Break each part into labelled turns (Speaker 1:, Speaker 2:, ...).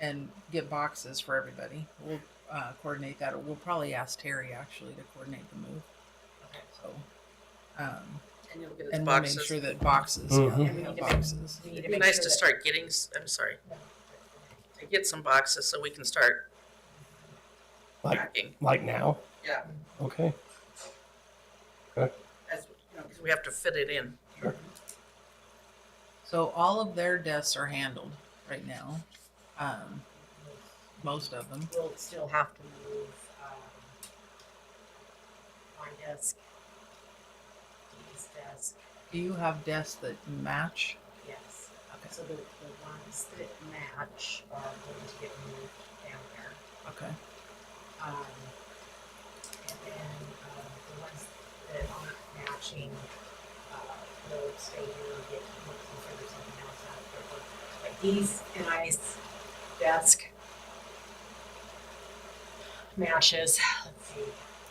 Speaker 1: and get boxes for everybody. We'll uh, coordinate that, or we'll probably ask Terry actually to coordinate the move.
Speaker 2: Okay.
Speaker 1: So, um,
Speaker 2: And you'll get us
Speaker 1: and we'll make
Speaker 2: boxes.
Speaker 1: sure
Speaker 2: It'd
Speaker 1: that boxes,
Speaker 3: Mhm.
Speaker 1: yeah, we have boxes.
Speaker 4: We need to
Speaker 2: be
Speaker 4: make
Speaker 2: nice
Speaker 4: sure
Speaker 2: to
Speaker 4: that-
Speaker 2: start getting, s- I'm sorry, to get some boxes so we can start
Speaker 3: Like-
Speaker 2: packing.
Speaker 3: Like now?
Speaker 2: Yeah,
Speaker 3: Okay.
Speaker 2: as, you know, 'cause we have to fit it in.
Speaker 1: So all of their deaths are handled right now. Um, most of them.
Speaker 4: We'll still have to move, um, my desk, Dee's desk,
Speaker 1: Do you have deaths that match?
Speaker 4: yes.
Speaker 1: Okay.
Speaker 4: So the, the ones that match are going to get moved down there.
Speaker 1: Okay.
Speaker 4: Um, and then, uh, the ones that aren't matching, uh, will stay here and get moved considered something else out of their work. But these guys' desk matches, let's see,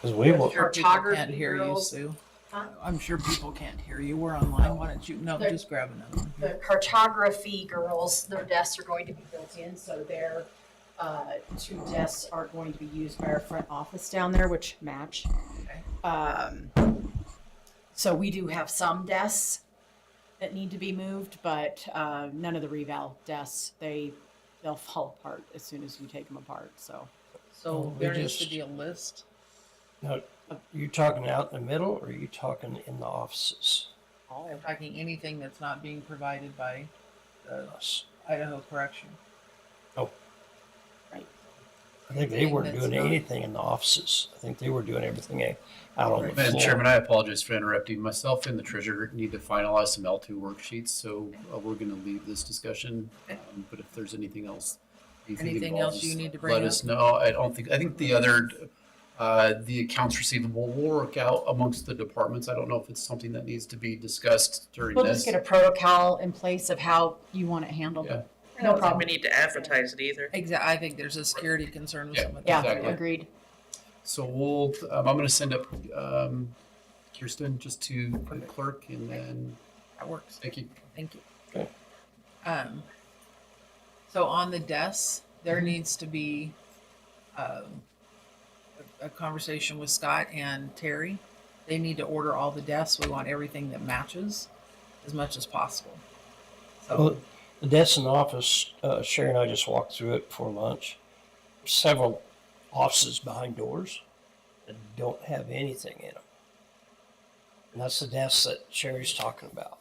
Speaker 3: Because we will.
Speaker 1: Sure people
Speaker 4: Photography
Speaker 1: can't hear you,
Speaker 4: girls.
Speaker 1: Sue.
Speaker 4: Huh?
Speaker 1: I'm sure people can't hear you. We're online. Why don't you? No,
Speaker 4: They're-
Speaker 1: just grab another one.
Speaker 4: the cartography girls, their desks are going to be built in, so their uh, two desks are going to be used by our front office down there, which match. Um, so we do have some desks that need to be moved, but uh, none of the reval desks. They they'll fall apart as soon as you take them apart. So
Speaker 1: So
Speaker 3: We
Speaker 1: there needs to
Speaker 3: just-
Speaker 1: be a list.
Speaker 3: Now, you talking out in the middle or are you talking in the offices?
Speaker 1: I'm talking anything that's not being provided by the
Speaker 3: Us.
Speaker 1: Idaho Correction.
Speaker 3: I think they weren't
Speaker 1: That's
Speaker 3: doing
Speaker 1: not-
Speaker 3: anything in the offices. I think they were doing everything eh, out on the
Speaker 1: Right.
Speaker 5: Madam
Speaker 3: floor.
Speaker 5: Chairman, I apologize for interrupting. Myself and the treasurer need to finalize some L2 worksheets, so uh, we're going to leave this discussion.
Speaker 1: Okay.
Speaker 5: Um, But if there's anything else.
Speaker 1: Anything
Speaker 5: involves
Speaker 1: else you
Speaker 5: us,
Speaker 1: need to bring
Speaker 5: Let
Speaker 1: up?
Speaker 5: us know. I don't think, I think the other, uh, the accounts receivable will work out amongst the departments. I don't know if it's something that needs to be discussed during
Speaker 4: we'll just
Speaker 5: this.
Speaker 4: get a protocol in place of how you want it handled.
Speaker 5: Yeah.
Speaker 2: I don't think
Speaker 4: problem.
Speaker 2: we need to advertise it either.
Speaker 1: Exactly. I think there's a security concern with
Speaker 5: Yeah,
Speaker 1: some of
Speaker 4: Yeah,
Speaker 1: that.
Speaker 5: Exactly.
Speaker 4: agreed.
Speaker 5: So we'll, um, I'm going to send up um, Kirsten just to the clerk and then
Speaker 1: That works.
Speaker 5: Vicky.
Speaker 1: Thank you.
Speaker 3: Okay.
Speaker 1: Um, so on the desks, there needs to be um, a, a conversation with Scott and Terry. They need to order all the desks. We want everything that matches as much as possible.
Speaker 3: Well, the desk in the office, uh, Sherry and I just walked through it before lunch. Several offices behind doors that don't have anything in them. And that's the desk that Sherry's talking about.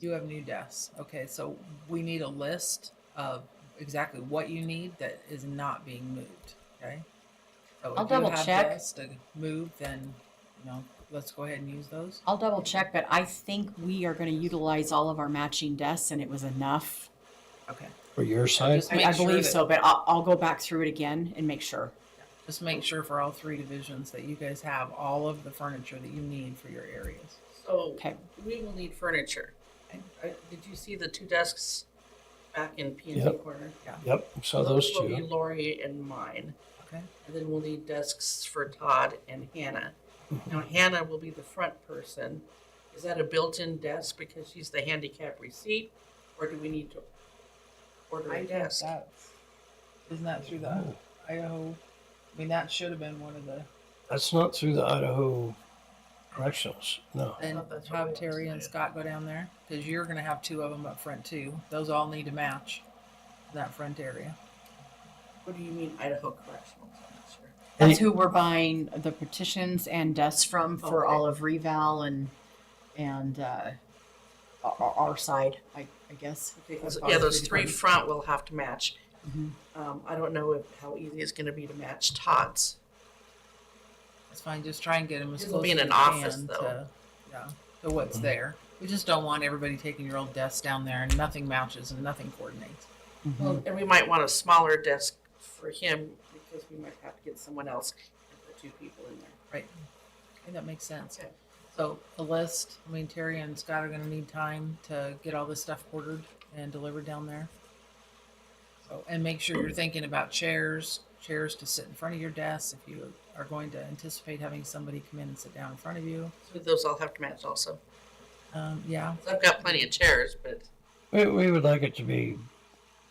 Speaker 1: You have new desks. Okay, so we need a list of exactly what you need that is not being moved. Okay. So
Speaker 4: I'll
Speaker 1: if you
Speaker 4: double
Speaker 1: have
Speaker 4: check.
Speaker 1: desks To move, then, you know, let's go ahead and use those.
Speaker 4: I'll double check, but I think we are going to utilize all of our matching desks, and it was enough
Speaker 1: Okay.
Speaker 3: For your side,
Speaker 1: Just
Speaker 4: I,
Speaker 1: make
Speaker 4: I
Speaker 1: sure
Speaker 4: believe
Speaker 1: that-
Speaker 4: so, but I'll, I'll go back through it again and make sure.
Speaker 1: Just make sure for all three divisions that you guys have all of the furniture that you need for your areas.
Speaker 2: So
Speaker 4: Okay.
Speaker 2: we will need furniture. I- Did you see the two desks back in P and Z
Speaker 3: Yep.
Speaker 2: corner?
Speaker 3: yep, so those
Speaker 2: will be
Speaker 3: two.
Speaker 2: Lori and mine.
Speaker 1: Okay.
Speaker 2: And then we'll need desks for Todd and Hannah. Now Hannah will be the front person. Is that a built-in desk because she's the handicap receipt? Or do we need to order a desk?
Speaker 1: That's, isn't that through the
Speaker 4: Oh.
Speaker 1: Idaho? I mean, that should have been one of the,
Speaker 3: That's not through the Idaho correctionals, no.
Speaker 1: and
Speaker 2: thought that's what we
Speaker 1: have
Speaker 2: were
Speaker 1: Terry and Scott go down there, cause you're gonna have two of them up front too. Those all need to match that front area.
Speaker 2: What do you mean Idaho Correctional? I'm not sure.
Speaker 4: That's who we're buying the petitions and desks from for all of Reval and, and, uh, our, our side, I, I guess.
Speaker 2: Okay, those- Yeah, those three front will have to match.
Speaker 4: Mhm.
Speaker 2: Um, I don't know if, how easy it's gonna be to match Todd's.
Speaker 1: It's fine, just try and get them as
Speaker 2: This will
Speaker 1: close
Speaker 2: be
Speaker 1: as
Speaker 2: in
Speaker 1: you
Speaker 2: an office,
Speaker 1: can
Speaker 2: though.
Speaker 1: to, yeah, to what's there. We just don't want everybody taking your old desks down there and nothing matches and nothing coordinates.
Speaker 4: Mhm.
Speaker 2: Well, and we might want a smaller desk for him because we might have to get someone else and put two people in there.
Speaker 1: Okay, that makes sense.
Speaker 2: Okay.
Speaker 1: So the list, I mean, Terry and Scott are gonna need time to get all this stuff ordered and delivered down there. So, and make sure you're thinking about chairs, chairs to sit in front of your desk if you are going to anticipate having somebody come in and sit down in front of you.
Speaker 2: So those all have to match also.
Speaker 1: Um, yeah,
Speaker 2: So I've got plenty of chairs, but
Speaker 3: We, we would like it to be